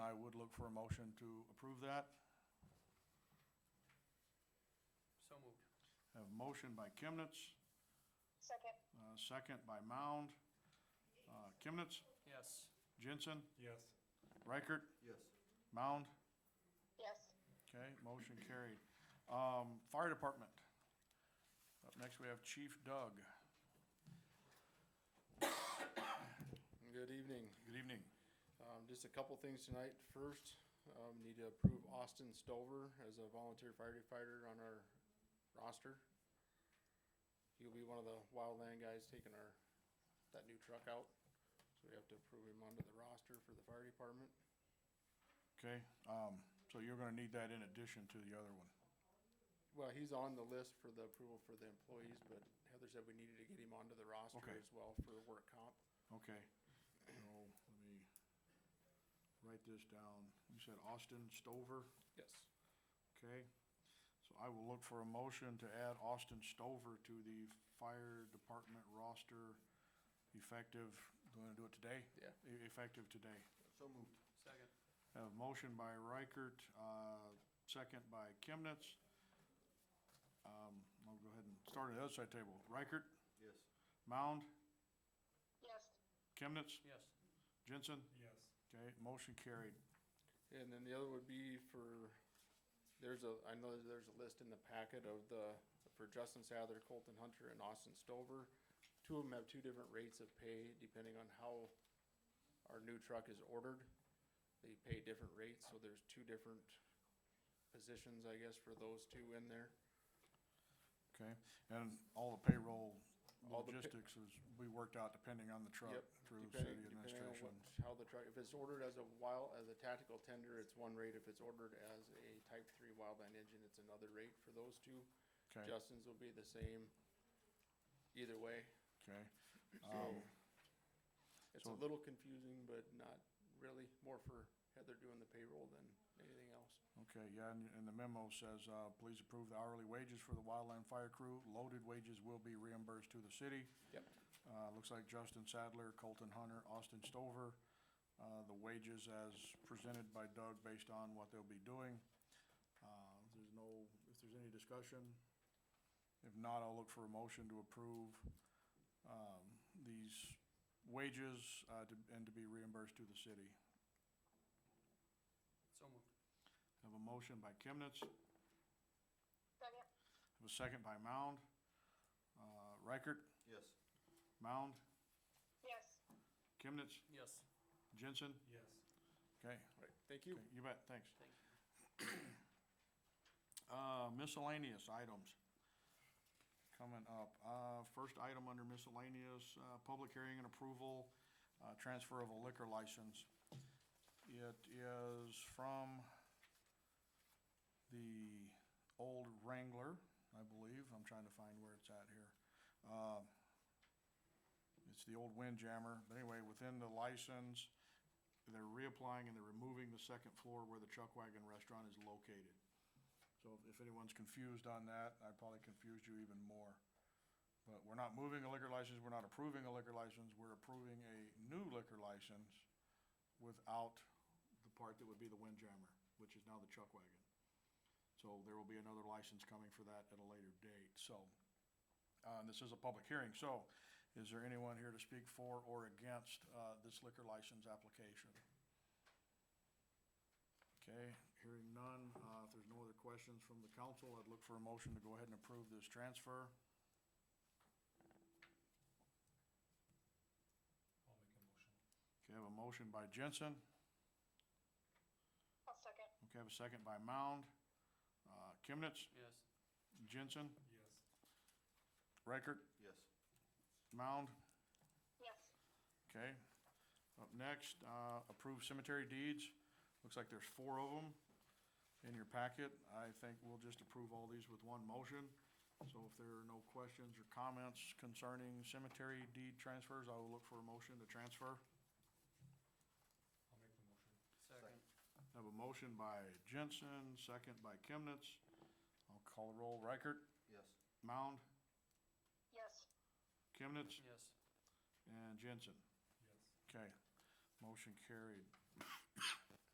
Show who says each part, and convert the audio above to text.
Speaker 1: look for a motion to approve that.
Speaker 2: So moved.
Speaker 1: Have motion by Chemnitz,
Speaker 3: Second,
Speaker 1: uh, second by Mound. Uh, Chemnitz,
Speaker 2: Yes.
Speaker 1: Jensen,
Speaker 4: Yes.
Speaker 1: Reichert,
Speaker 4: Yes.
Speaker 1: Mound.
Speaker 3: yes.
Speaker 1: Okay, motion carried. Um, Fire Department. Up next, we have Chief Doug.
Speaker 5: Good evening.
Speaker 1: Good evening.
Speaker 5: Um, just a couple things tonight. First, um, need to approve Austin Stover as a volunteer firefighter on our roster. He'll be one of the wildland guys taking our, that new truck out. So we have to approve him onto the roster for the fire department.
Speaker 1: Okay, um, so you're gonna need that in addition to the other one.
Speaker 5: Well, he's on the list for the approval for the employees, but Heather said we needed to get him onto the roster
Speaker 1: Okay.
Speaker 5: as well for work comp.
Speaker 1: Okay, so let me write this down. You said Austin Stover,
Speaker 5: Yes.
Speaker 1: okay? So I will look for a motion to add Austin Stover to the fire department roster effective, do you wanna do it today?
Speaker 5: Yeah.
Speaker 1: E- Effective today.
Speaker 4: So moved.
Speaker 2: Second.
Speaker 1: Have motion by Reichert, uh, second by Chemnitz. Um, I'll go ahead and start at the other side table. Reichert,
Speaker 4: Yes.
Speaker 1: Mound,
Speaker 3: Yes,
Speaker 1: Chemnitz,
Speaker 2: Yes.
Speaker 1: Jensen.
Speaker 4: Yes.
Speaker 1: Okay, motion carried.
Speaker 5: And then the other would be for, there's a, I know that there's a list in the packet of the, for Justin Sather, Colton Hunter, and Austin Stover. Two of them have two different rates of pay depending on how our new truck is ordered. They pay different rates, so there's two different positions, I guess, for those two in there.
Speaker 1: Okay, and all the payroll
Speaker 5: All the pa-
Speaker 1: logistics is, we worked out depending on the truck
Speaker 5: Yep,
Speaker 1: through
Speaker 5: depending-
Speaker 1: city
Speaker 5: depending on
Speaker 1: administration.
Speaker 5: what- How the truck, if it's ordered as a wild, as a tactical tender, it's one rate. If it's ordered as a type three wildland engine, it's another rate for those two.
Speaker 1: Okay,
Speaker 5: Justin's will be the same either way.
Speaker 1: okay. Um,
Speaker 5: So it's a
Speaker 1: so-
Speaker 5: little confusing, but not really, more for Heather doing the payroll than anything else.
Speaker 1: Okay, yeah, and, and the memo says, uh, please approve the hourly wages for the wildland fire crew. Loaded wages will be reimbursed to the city.
Speaker 5: Yep.
Speaker 1: Uh, looks like Justin Sadler, Colton Hunter, Austin Stover, uh, the wages as presented by Doug based on what they'll be doing. Uh, if there's no, if there's any discussion, if not, I'll look for a motion to approve, um, these wages, uh, to, and to be reimbursed to the city.
Speaker 2: So moved.
Speaker 1: Have a motion by Chemnitz.
Speaker 3: second,
Speaker 1: Have a second by Mound. Uh, Reichert,
Speaker 4: Yes.
Speaker 1: Mound,
Speaker 3: yes.
Speaker 1: Chemnitz,
Speaker 2: Yes.
Speaker 1: Jensen.
Speaker 4: Yes.
Speaker 1: Okay,
Speaker 5: All right, thank you.
Speaker 1: okay, you bet, thanks.
Speaker 2: Thank you.
Speaker 1: Uh, miscellaneous items coming up. Uh, first item under miscellaneous, uh, public hearing and approval, uh, transfer of a liquor license. It is from the old Wrangler, I believe. I'm trying to find where it's at here. Uh, It's the old Windjammer, but anyway, within the license, they're reapplying and they're removing the second floor where the Chuck Wagon Restaurant is located. So if anyone's confused on that, I probably confused you even more. But we're not moving a liquor license, we're not approving a liquor license, we're approving a new liquor license without the part that would be the Windjammer, which is now the Chuck Wagon. So there will be another license coming for that at a later date, so. Uh, this is a public hearing, so is there anyone here to speak for or against, uh, this liquor license application? Okay, hearing none, uh, if there's no other questions from the council, I'd look for a motion to go ahead and approve this transfer.
Speaker 4: I'll make a motion.
Speaker 1: Okay, I have a motion by Jensen,
Speaker 3: I'll second,
Speaker 1: okay, I have a second by Mound. Uh, Chemnitz,
Speaker 2: Yes.
Speaker 1: Jensen,
Speaker 4: Yes.
Speaker 1: Reichert,
Speaker 4: Yes.
Speaker 1: Mound,
Speaker 3: yes.
Speaker 1: okay. Up next, uh, approve cemetery deeds, looks like there's four of them in your packet. I think we'll just approve all these with one motion. So if there are no questions or comments concerning cemetery deed transfers, I will look for a motion to transfer.
Speaker 4: I'll make the motion.
Speaker 2: Second.
Speaker 1: I Have a motion by Jensen, second by Chemnitz. I'll call the roll. Reichert,
Speaker 4: Yes.
Speaker 1: Mound,
Speaker 3: Yes,
Speaker 1: Chemnitz,
Speaker 2: Yes.
Speaker 1: and Jensen.
Speaker 4: Yes.
Speaker 1: Okay, motion carried.